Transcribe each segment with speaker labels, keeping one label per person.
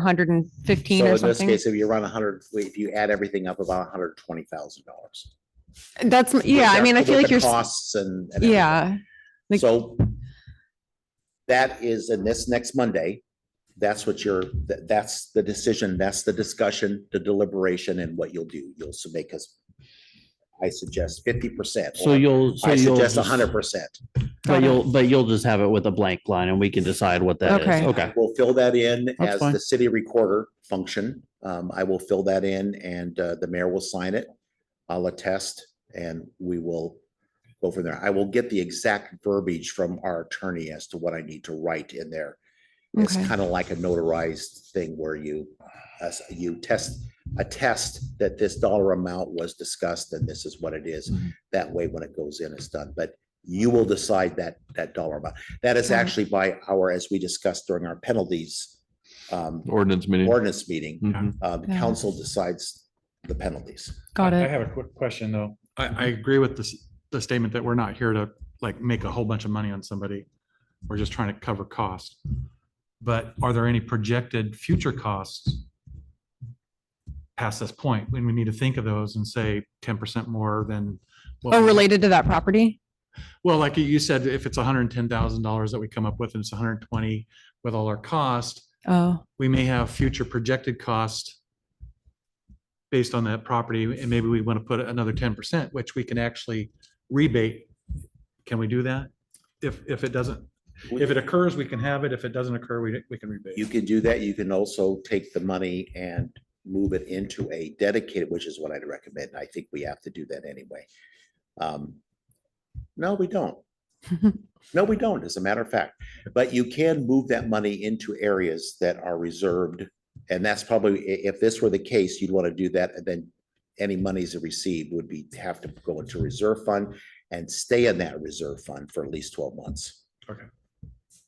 Speaker 1: hundred and fifteen
Speaker 2: So
Speaker 1: or
Speaker 2: in this
Speaker 1: something.
Speaker 2: case, if you run a hundred, if you add everything up, about hundred twenty thousand dollars.
Speaker 1: That's, yeah, I mean, I feel like you're, s-
Speaker 2: Costs and. and
Speaker 1: yeah, like-
Speaker 2: So that is in this next Monday. That's what you're, tha- that's the decision, that's the discussion, the deliberation and what you'll do. You'll submit because I suggest fifty percent.
Speaker 3: So you'll, so
Speaker 2: I
Speaker 3: you'll.
Speaker 2: suggest
Speaker 3: just-
Speaker 2: hundred percent.
Speaker 3: But you'll, but you'll just have it with a blank line and we can decide what that
Speaker 1: Okay.
Speaker 3: is. Okay.
Speaker 2: We'll fill that in
Speaker 3: That's
Speaker 2: as
Speaker 3: fine.
Speaker 2: the city recorder function. Um, I will fill that in and uh, the mayor will sign it. I'll attest and we will go from there. I will get the exact verbiage from our attorney as to what I need to write in there. It's
Speaker 1: Okay.
Speaker 2: kind of like a notarized thing where you, as you test, attest that this dollar amount was discussed and this is what it is.
Speaker 1: Mhm.
Speaker 2: That way, when it goes in, it's done, but you will decide that, that dollar amount. That is
Speaker 1: Got it.
Speaker 2: actually by our, as we discussed during our penalties, um,
Speaker 4: Ordinance
Speaker 1: Mm-hmm.
Speaker 4: meeting.
Speaker 2: ordinance meeting,
Speaker 4: Mhm.
Speaker 2: uh, the
Speaker 1: Yeah.
Speaker 2: council decides the penalties.
Speaker 1: got
Speaker 5: I- I
Speaker 1: it.
Speaker 5: have a quick question, though. I, I
Speaker 6: Mhm.
Speaker 5: agree with this, the statement that we're not here to like make a whole bunch of money on somebody. We're just trying to cover cost. But are there any projected future costs past this point? When we need to think of those and say ten percent more than. what
Speaker 1: Oh,
Speaker 5: we-
Speaker 1: related to that property?
Speaker 5: Well, like you said, if it's hundred and ten thousand dollars that we come up with and it's $120 with all our cost,
Speaker 1: Oh,
Speaker 5: we may have future projected cost based on that property, and maybe we want to put another ten percent, which we can actually rebate. Can we do that? If, if it doesn't, if it occurs, we can have it. If it doesn't occur, we, we can
Speaker 2: You
Speaker 5: rebate.
Speaker 2: can do that. You can also take the money and move it into a dedicated, which is what I'd recommend. I think we have to do that anyway. Um, No, we don't. No, we don't, as a matter of fact. But you can move that money into areas that are reserved. And that's probably, i- if this were the case, you'd want to do that. And then any monies received would be, have to go into reserve fund and stay in that reserve fund for at least twelve months.
Speaker 5: Okay.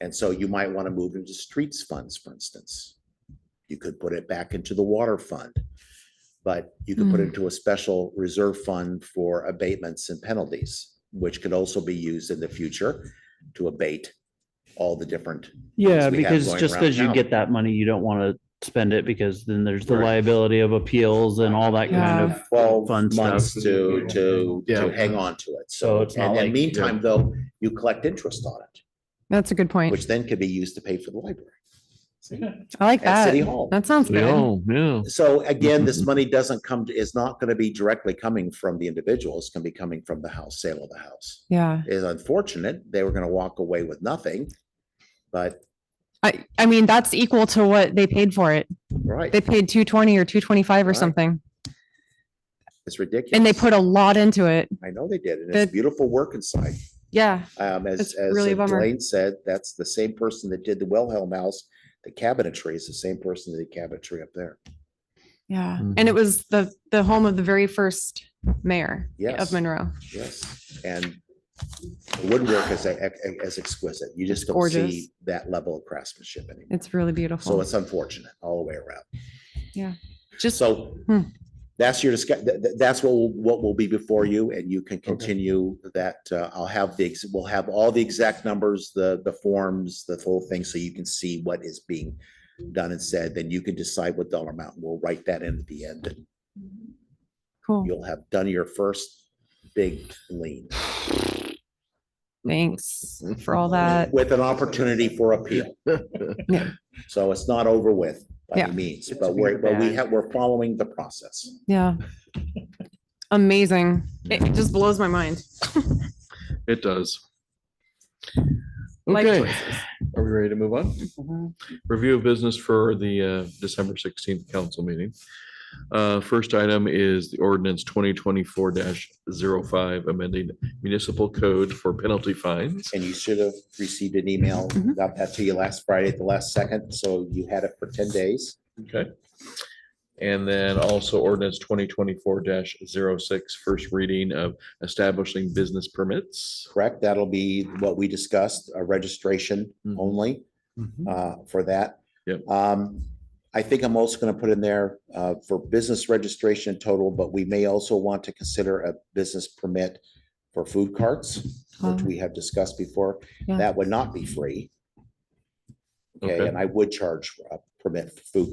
Speaker 2: And so you might want to move into streets funds, for instance. You could put it back into the water fund. But you could put it
Speaker 1: Mm.
Speaker 2: into a special reserve fund for abatements and penalties, which could also be used in the future to abate all the different,
Speaker 3: Yeah,
Speaker 2: we have
Speaker 3: because
Speaker 2: going
Speaker 3: just
Speaker 2: around
Speaker 3: because you
Speaker 2: town.
Speaker 3: get that money, you don't want to spend it because then there's the
Speaker 2: Right.
Speaker 3: liability of appeals and all that kind of.
Speaker 2: twelve
Speaker 3: Fun stuff.
Speaker 2: months to, to,
Speaker 3: Yeah.
Speaker 2: to hang on to it.
Speaker 3: So
Speaker 2: So,
Speaker 3: it's not
Speaker 2: and in the
Speaker 3: like-
Speaker 2: meantime, though, you collect interest on it,
Speaker 1: that's a good point.
Speaker 2: which then could be used to pay for the library
Speaker 1: I like
Speaker 2: at
Speaker 1: that.
Speaker 2: City Hall.
Speaker 1: That sounds good.
Speaker 4: Yeah, Oh, yeah.
Speaker 2: So again,
Speaker 3: Mm-hmm.
Speaker 2: this money doesn't come, to is not gonna be directly coming from the individual. It's gonna be coming from the house, sale of the house.
Speaker 1: Yeah.
Speaker 2: It's unfortunate. They were gonna walk away with nothing. But,
Speaker 1: I, I mean, that's equal to what they paid for it.
Speaker 2: right,
Speaker 1: They paid two twenty or two twenty-five or
Speaker 2: Right.
Speaker 1: something.
Speaker 2: it's ridiculous.
Speaker 1: And they put a lot into it.
Speaker 2: I know they did, and it's
Speaker 1: the-
Speaker 2: beautiful work inside.
Speaker 1: Yeah.
Speaker 2: Um, as,
Speaker 1: It's
Speaker 2: as
Speaker 1: really a
Speaker 2: uh,
Speaker 1: bummer.
Speaker 2: Blaine said, that's the same person that did the Wilhelm House. The cabinetry is the same person that did cabinetry up there.
Speaker 1: Yeah.
Speaker 5: Mm-hmm.
Speaker 1: And it was the, the home of the very first mayor
Speaker 2: Yes.
Speaker 1: of Monroe.
Speaker 2: Yes, and the woodwork is, a- a- is exquisite. You just don't
Speaker 1: Gorgeous.
Speaker 2: see that level of craftsmanship anymore.
Speaker 1: It's really
Speaker 2: So
Speaker 1: beautiful.
Speaker 2: it's unfortunate all the way around.
Speaker 1: Just,
Speaker 2: So
Speaker 1: Hmm.
Speaker 2: that's your discuss, th- th- that's what, will- what will be before you and you can continue that. uh, I'll have the, ex- we'll have all the exact numbers, the, the forms, the whole thing, so you can see what is being done and said, then you can decide what dollar amount. We'll write that in at the end and
Speaker 1: cool.
Speaker 2: you'll have done your first big lean
Speaker 1: Thanks
Speaker 2: Mm-hmm.
Speaker 1: for all that.
Speaker 2: with an opportunity for appeal.
Speaker 1: Yeah.
Speaker 2: So it's not over with by
Speaker 1: Yeah.
Speaker 2: any means, but we're, but we have, we're following the process.
Speaker 1: Yeah. Amazing. It it just blows my mind.
Speaker 4: It does.
Speaker 1: Life
Speaker 4: Okay,
Speaker 1: choices.
Speaker 4: are we ready to move on? Review of business for the uh, December sixteenth council meeting. Uh, First item is the ordinance twenty twenty-four 5 amending municipal code for penalty fines.
Speaker 2: and you should have received an email
Speaker 1: Mhm.
Speaker 2: about that to you last Friday at the last second, so you had it for ten days.
Speaker 4: Okay. And then also ordinance twenty twenty-four 6 first reading of establishing business permits.
Speaker 2: Correct? That'll be what we discussed, a registration
Speaker 4: Mhm.
Speaker 2: only
Speaker 5: Mhm.
Speaker 2: uh, for that.
Speaker 4: Yep.
Speaker 2: Um, I think I'm also gonna put in there uh, for business registration total, but we may also want to consider a business permit for food carts, which
Speaker 1: Oh.
Speaker 2: we have discussed before.
Speaker 1: Yeah.
Speaker 2: That would not be free. Okay,
Speaker 4: Okay.
Speaker 2: and I would charge a permit for food